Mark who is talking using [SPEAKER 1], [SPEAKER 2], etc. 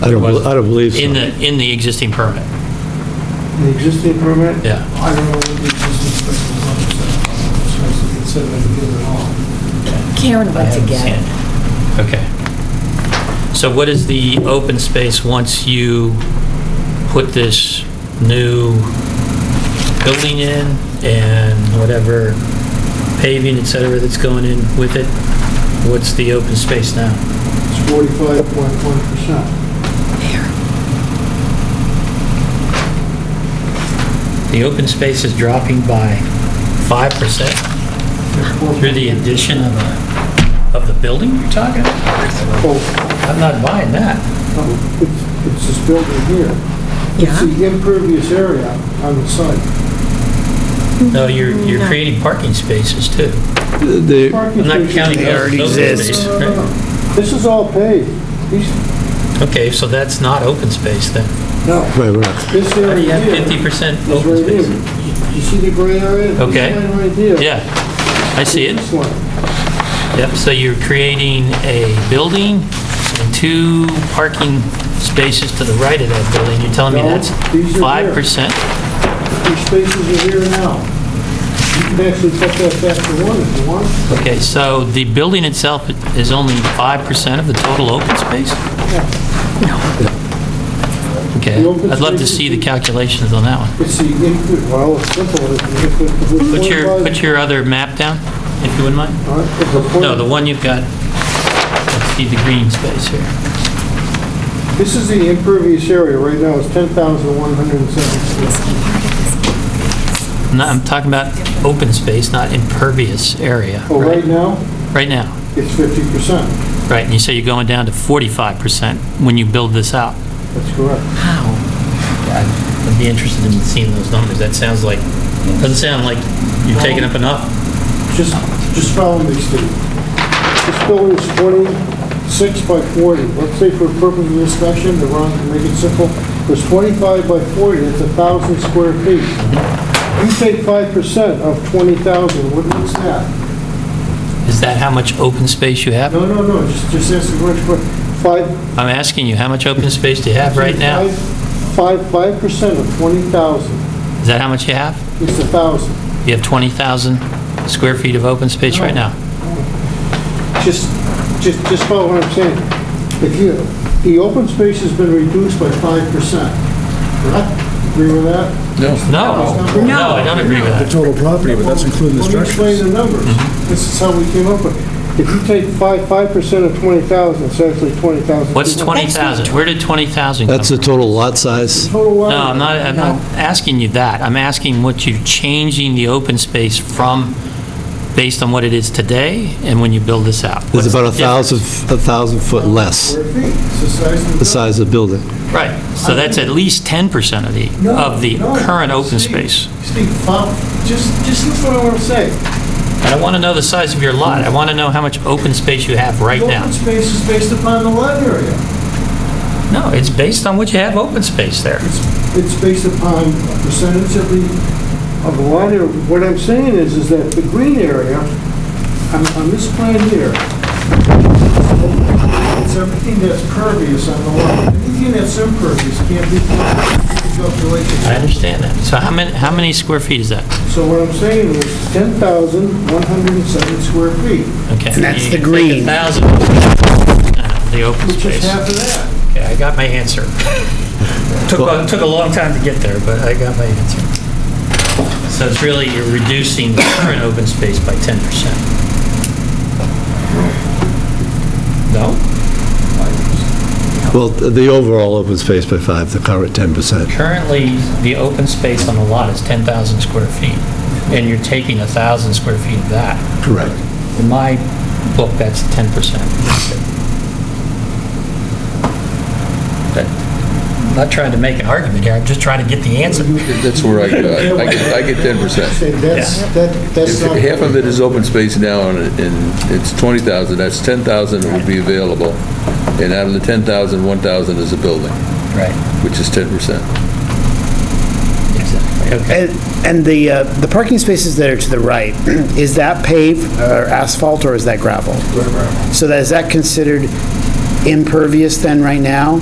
[SPEAKER 1] I don't, bel- I don't believe
[SPEAKER 2] In
[SPEAKER 1] so.
[SPEAKER 2] the, in the existing permit,
[SPEAKER 3] The existing permit?
[SPEAKER 2] yeah.
[SPEAKER 3] I don't know what the existing permit was, so I should consider it given all.
[SPEAKER 4] Karen went to get it.
[SPEAKER 2] Okay. So what is the open space once you put this new building in and whatever paving, et cetera, that's going in with it? What's the open space now?
[SPEAKER 3] It's forty-five point one percent.
[SPEAKER 2] The open space is dropping by 5% through the addition of a, of the building you're talking? about? I'm not buying that.
[SPEAKER 3] Oh, It's, it's this building here. It's
[SPEAKER 4] Yeah.
[SPEAKER 3] the impervious area on the site.
[SPEAKER 2] No, you're, you're
[SPEAKER 4] No.
[SPEAKER 2] creating parking spaces too.
[SPEAKER 1] The-
[SPEAKER 3] Parking
[SPEAKER 2] I'm not
[SPEAKER 3] spaces-
[SPEAKER 2] counting
[SPEAKER 5] They
[SPEAKER 2] those
[SPEAKER 5] already
[SPEAKER 2] those
[SPEAKER 5] exist.
[SPEAKER 2] spaces.
[SPEAKER 3] No, no,
[SPEAKER 2] right?
[SPEAKER 3] no, no. This is all paved. These,
[SPEAKER 2] Okay, so that's not open space then.
[SPEAKER 3] no,
[SPEAKER 1] Right, right.
[SPEAKER 3] this
[SPEAKER 2] How do you
[SPEAKER 3] area
[SPEAKER 2] have
[SPEAKER 3] here
[SPEAKER 2] 50%
[SPEAKER 3] is
[SPEAKER 2] open
[SPEAKER 3] right here.
[SPEAKER 2] space?
[SPEAKER 3] You- You see the gray area? This
[SPEAKER 2] Okay.
[SPEAKER 3] line Right here.
[SPEAKER 2] Yeah, I see it.
[SPEAKER 3] This one.
[SPEAKER 2] Yep, so you're creating a building and two parking spaces to the right of that building. You're telling me
[SPEAKER 3] No,
[SPEAKER 2] that's
[SPEAKER 3] these are here.
[SPEAKER 2] 5%?
[SPEAKER 3] These spaces are here now. You can actually put that back to one if you want.
[SPEAKER 2] Okay, so the building itself is only 5% of the total open space? Okay,
[SPEAKER 3] The open
[SPEAKER 2] I'd love to
[SPEAKER 3] space is-
[SPEAKER 2] see the calculations on that one.
[SPEAKER 3] It's the input, well, it's simple. It's the- it's the
[SPEAKER 2] Put your,
[SPEAKER 3] 45
[SPEAKER 2] put your other map down, if you wouldn't mind.
[SPEAKER 3] All right, it's a
[SPEAKER 2] No, the
[SPEAKER 3] point-
[SPEAKER 2] one you've got, let's see the green space here.
[SPEAKER 3] This is the impervious area right now, it's 10,170.
[SPEAKER 2] No, I'm talking about open space, not impervious area.
[SPEAKER 3] Well, Oh, right now,
[SPEAKER 2] Right now,
[SPEAKER 3] it's 50%.
[SPEAKER 2] right, and you say you're going down to 45% when you build this out.
[SPEAKER 3] That's correct.
[SPEAKER 2] How? I'd be interested in seeing those numbers, that sounds like, doesn't sound like you're taking up enough.
[SPEAKER 3] Just, just follow me, Steve. This building is 26 by 40. Let's say for purpose of discussion, to run, to make it simple, it's 25 by 40, that's 1,000 square feet. You take 5% of 20,000, what is that?
[SPEAKER 2] Is that how much open space you have?
[SPEAKER 3] No, no, no, just, just ask the question. Five.
[SPEAKER 2] I'm asking you, how much open space do you have right now?
[SPEAKER 3] five- Five, 5% of 20,000
[SPEAKER 2] Is that how much you have?
[SPEAKER 3] is 1,000.
[SPEAKER 2] You have 20,000 square feet of open space right now?
[SPEAKER 3] Just, just, just follow what I'm saying. If you, the open space has been reduced by 5%, correct? Agree with that?
[SPEAKER 2] No,
[SPEAKER 3] No.
[SPEAKER 2] no, I don't agree with that.
[SPEAKER 5] The total property, but that's including the
[SPEAKER 3] Let me
[SPEAKER 5] structures. Mm-hmm.
[SPEAKER 3] explain the numbers. This is how we came up with it. If you take five, 5% of 20,000, it's actually 20,000.
[SPEAKER 2] What's 20,000? Where did 20,000 come
[SPEAKER 1] That's the
[SPEAKER 2] from?
[SPEAKER 1] total lot size?
[SPEAKER 3] Total lot.
[SPEAKER 2] No, I'm not, I'm not asking you that. I'm asking what you're changing the open space from, based on what it is today and when you build this out.
[SPEAKER 1] It's
[SPEAKER 2] What's
[SPEAKER 1] about a
[SPEAKER 2] the difference?
[SPEAKER 1] 1,000, a 1,000 foot less,
[SPEAKER 3] Square feet. It's the size of the
[SPEAKER 1] the size of the building.
[SPEAKER 2] Right, so that's at least 10% of the,
[SPEAKER 3] No,
[SPEAKER 2] of the
[SPEAKER 3] no,
[SPEAKER 2] current open
[SPEAKER 3] Steve,
[SPEAKER 2] space.
[SPEAKER 3] Steve, fo- just, just listen to what I want to say.
[SPEAKER 2] I don't want to know the size of your lot. I want to know how much open space you have right
[SPEAKER 3] The
[SPEAKER 2] now.
[SPEAKER 3] open space is based upon the lot area.
[SPEAKER 2] No, it's based on what you have open space there.
[SPEAKER 3] It's, it's based upon a percentage of the, of the lot area. What I'm saying is, is that the green area, on, on this plan here, it's everything that's pervious on the lot. Anything that's impervious can't be
[SPEAKER 2] I
[SPEAKER 3] calculated.
[SPEAKER 2] understand that. So how many, how many square feet is that?
[SPEAKER 3] So what I'm saying is 10,107 square feet,
[SPEAKER 2] Okay.
[SPEAKER 5] And that's
[SPEAKER 2] You
[SPEAKER 5] the
[SPEAKER 2] take
[SPEAKER 5] green.
[SPEAKER 2] 1,000, uh, the open
[SPEAKER 3] which
[SPEAKER 2] space.
[SPEAKER 3] is half of that.
[SPEAKER 2] Okay, I got my answer. Took, a- took a long time to get there, but I got my answer. So it's really, you're reducing the current open space by 10%. No?
[SPEAKER 1] Well, the overall open space by 5, the current 10%.
[SPEAKER 2] Currently, the open space on the lot is 10,000 square feet, and you're taking 1,000 square feet of that.
[SPEAKER 1] Correct.
[SPEAKER 2] In my book, that's 10%. That- I'm not trying to make an argument here, I'm just trying to get the answer.
[SPEAKER 6] That's where I, uh, I get, I get ten percent.
[SPEAKER 3] Say That's, that, that's not.
[SPEAKER 6] Half of it is open space now, and it- and it's twenty thousand, that's ten thousand that would be available. And out of the ten thousand, one thousand is a building,
[SPEAKER 2] Right.
[SPEAKER 6] which is ten percent.
[SPEAKER 2] Exactly, okay.
[SPEAKER 5] And and the, uh, the parking spaces that are to the right, is that paved uh, or asphalt or is that gravel? So that, is that considered impervious then right now?